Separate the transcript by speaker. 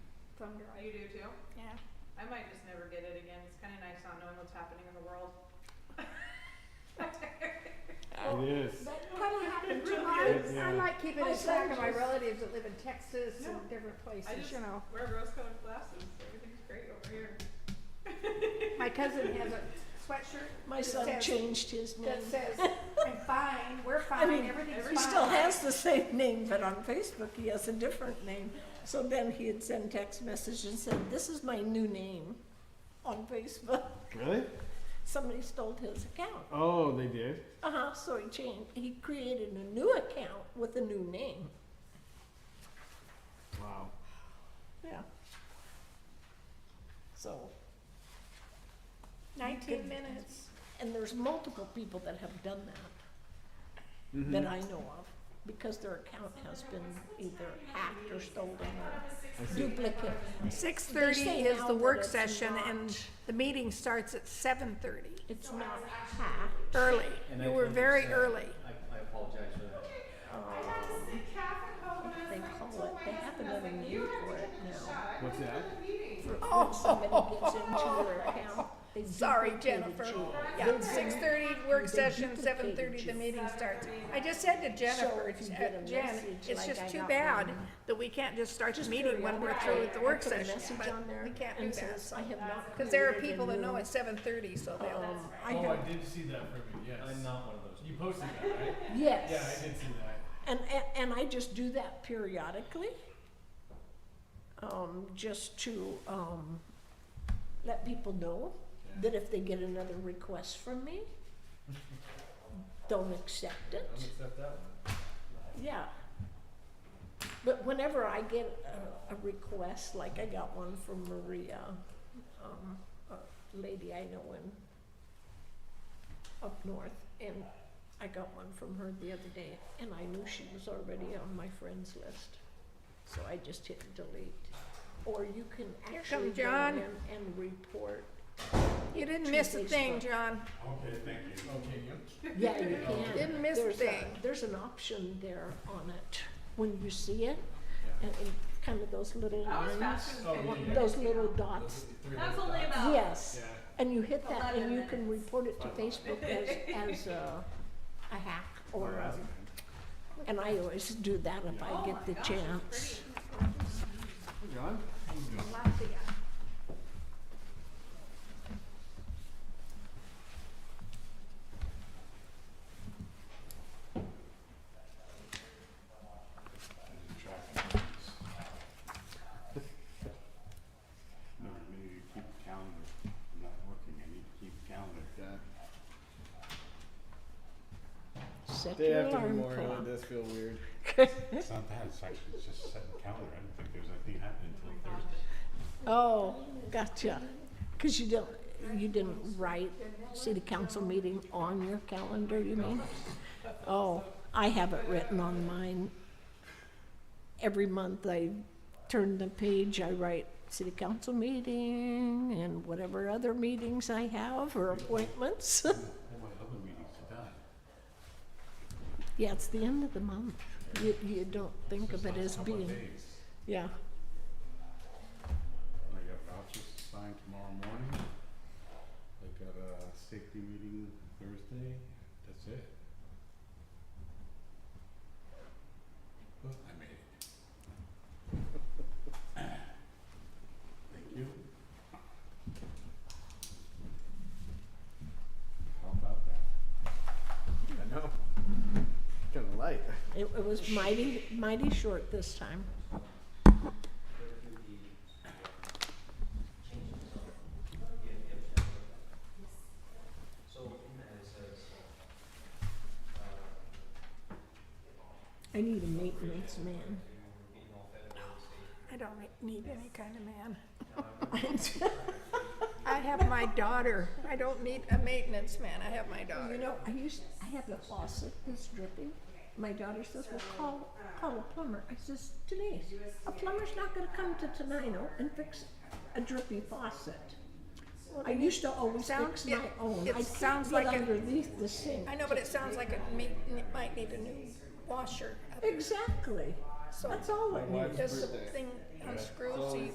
Speaker 1: thumb drive.
Speaker 2: You do too?
Speaker 1: Yeah.
Speaker 2: I might just never get it again. It's kind of nice not knowing what's happening in the world.
Speaker 3: Oh,
Speaker 4: It is.
Speaker 1: That'll happen to
Speaker 2: really
Speaker 1: mine.
Speaker 4: is.
Speaker 1: I
Speaker 4: Yeah.
Speaker 1: might keep it
Speaker 3: My
Speaker 1: in back of my
Speaker 3: soldiers.
Speaker 1: relatives that live in Texas
Speaker 2: No.
Speaker 1: and different
Speaker 2: I
Speaker 1: places,
Speaker 2: just
Speaker 1: you know.
Speaker 2: wear rose-colored glasses. Everything's great over here.
Speaker 1: My cousin has a sweatshirt
Speaker 3: My
Speaker 1: It
Speaker 3: son
Speaker 1: says-
Speaker 3: changed his name.
Speaker 1: that says, I'm fine, we're fine,
Speaker 3: Mm. mean,
Speaker 1: everything's fine.
Speaker 3: He still has the same name, but on Facebook he has a different name. So then he'd send text message and said, this is my new name on Facebook.
Speaker 4: Really?
Speaker 3: Somebody stole his account.
Speaker 4: Oh, they did.
Speaker 3: Uh-huh, so he changed, he created a new account with a new name.
Speaker 4: Wow.
Speaker 3: Yeah. So,
Speaker 1: Nineteen minutes.
Speaker 3: and there's multiple people that have done that,
Speaker 4: Mhm.
Speaker 3: that I know of, because their account has been either hacked or stolen
Speaker 4: I
Speaker 3: or
Speaker 4: see.
Speaker 3: duplicate.
Speaker 1: Six
Speaker 3: They
Speaker 1: thirty
Speaker 3: say
Speaker 1: is
Speaker 3: now
Speaker 1: the
Speaker 3: that
Speaker 1: work
Speaker 3: it's
Speaker 1: session
Speaker 3: not-
Speaker 1: and the meeting starts at seven thirty,
Speaker 3: It's not hacked.
Speaker 1: early.
Speaker 5: And I
Speaker 1: You were
Speaker 5: can
Speaker 1: very
Speaker 5: accept-
Speaker 1: early.
Speaker 5: I, I apologize for that.
Speaker 3: they call it, they have another name for it now.
Speaker 4: What's that?
Speaker 3: For when somebody gets into your account, they
Speaker 1: Sorry,
Speaker 3: duplicated
Speaker 1: Jennifer.
Speaker 3: you.
Speaker 1: Yeah, six thirty, work
Speaker 3: They
Speaker 1: session,
Speaker 3: duplicated
Speaker 1: seven thirty, the
Speaker 3: you.
Speaker 1: meeting starts. I just said to Jennifer,
Speaker 3: if you
Speaker 1: uh,
Speaker 3: get a
Speaker 1: Jen,
Speaker 3: message
Speaker 1: it's
Speaker 3: like I
Speaker 1: just too
Speaker 3: got
Speaker 1: bad
Speaker 3: one-
Speaker 1: that we can't just start the
Speaker 3: Just
Speaker 1: meeting when we're
Speaker 3: periodically,
Speaker 1: through with the work
Speaker 3: I put a
Speaker 1: session,
Speaker 3: message
Speaker 1: but
Speaker 3: on there
Speaker 1: we can't do
Speaker 3: and
Speaker 1: that.
Speaker 3: says, I have not
Speaker 1: Cause there are
Speaker 3: created a
Speaker 1: people that know
Speaker 3: new-
Speaker 1: it's seven thirty, so they'll,
Speaker 3: Um, I
Speaker 6: Oh, I
Speaker 3: have,
Speaker 6: did see that from you, yes.
Speaker 5: I'm not one of those.
Speaker 6: You posted that, right? Yeah, I
Speaker 3: yes,
Speaker 6: did see that.
Speaker 3: and, and, and I just do that periodically. Um, just to, um, let people know that if they get another request from me, don't accept it.
Speaker 6: I'll accept that one.
Speaker 3: Yeah. But whenever I get a, a request, like I got one from Maria, um, a lady I know in up north, and I got one from her the other day, and I knew she was already on my friends list, so I just hit delete. Or you can
Speaker 1: Here
Speaker 3: actually
Speaker 1: come
Speaker 3: go
Speaker 1: John.
Speaker 3: in and report.
Speaker 1: you didn't
Speaker 3: to
Speaker 1: miss a thing,
Speaker 3: Facebook.
Speaker 1: John.
Speaker 6: Okay, thank you. Okay, you?
Speaker 3: Yeah, you can.
Speaker 1: Didn't miss a
Speaker 3: There's
Speaker 1: thing.
Speaker 3: There's an option there on it, when you see it,
Speaker 6: Yeah.
Speaker 3: and, and kind of those little
Speaker 2: That was
Speaker 3: lines,
Speaker 2: faster
Speaker 6: Oh,
Speaker 2: than
Speaker 6: yeah,
Speaker 2: fifteen
Speaker 6: yeah.
Speaker 2: minutes.
Speaker 3: those little dots.
Speaker 2: That's only about.
Speaker 3: Yes,
Speaker 6: Yeah.
Speaker 3: and you hit that and you
Speaker 2: 11
Speaker 3: can
Speaker 2: minutes.
Speaker 3: report it to Facebook as, as a, a hack or a, and I always do that if
Speaker 2: Oh
Speaker 3: I
Speaker 2: my
Speaker 3: get the
Speaker 2: gosh, it's
Speaker 3: chance.
Speaker 2: pretty.
Speaker 4: John?
Speaker 7: No, I need to keep calendar. I'm not working, I need to keep calendar.
Speaker 3: Set your alarm clock.
Speaker 4: does feel weird.
Speaker 7: It's not that, it's actually just setting calendar. I don't think there's anything happening until Thursday.
Speaker 3: Oh, gotcha, cause you don't, you didn't write city council meeting on your calendar, you mean? Oh, I have it written on mine. Every month I turn the page, I write city council meeting and whatever other meetings I have or appointments.
Speaker 7: All my other meetings are done.
Speaker 3: Yeah, it's the end of the month. You, you don't think of it as
Speaker 7: Couple of
Speaker 3: being,
Speaker 7: days.
Speaker 3: yeah.
Speaker 7: I got vouchers to sign tomorrow morning. I got a safety meeting Thursday. That's it. Well, I made it. Thank you. How about that?
Speaker 4: I know. Kind of light.
Speaker 3: It, it was mighty, mighty short this time. I need a maintenance man.
Speaker 1: I don't need any kind of man. I have my daughter. I don't need a maintenance man. I have my
Speaker 3: You
Speaker 1: daughter.
Speaker 3: know, I used, I have a faucet that's dripping. My daughter says, well, call, call a plumber. I says, Denise, a plumber's not gonna come to Tenino and fix a drippy faucet. I used to always
Speaker 1: Sounds-
Speaker 3: fix my
Speaker 1: it-
Speaker 3: own.
Speaker 1: it
Speaker 3: I can't
Speaker 1: sounds
Speaker 3: get
Speaker 1: like a-
Speaker 3: underneath the sink.
Speaker 1: I know, but it sounds like it meet- it might need a new washer.
Speaker 3: Exactly.
Speaker 1: So
Speaker 3: That's all it needs.
Speaker 1: Does the thing unscrew so you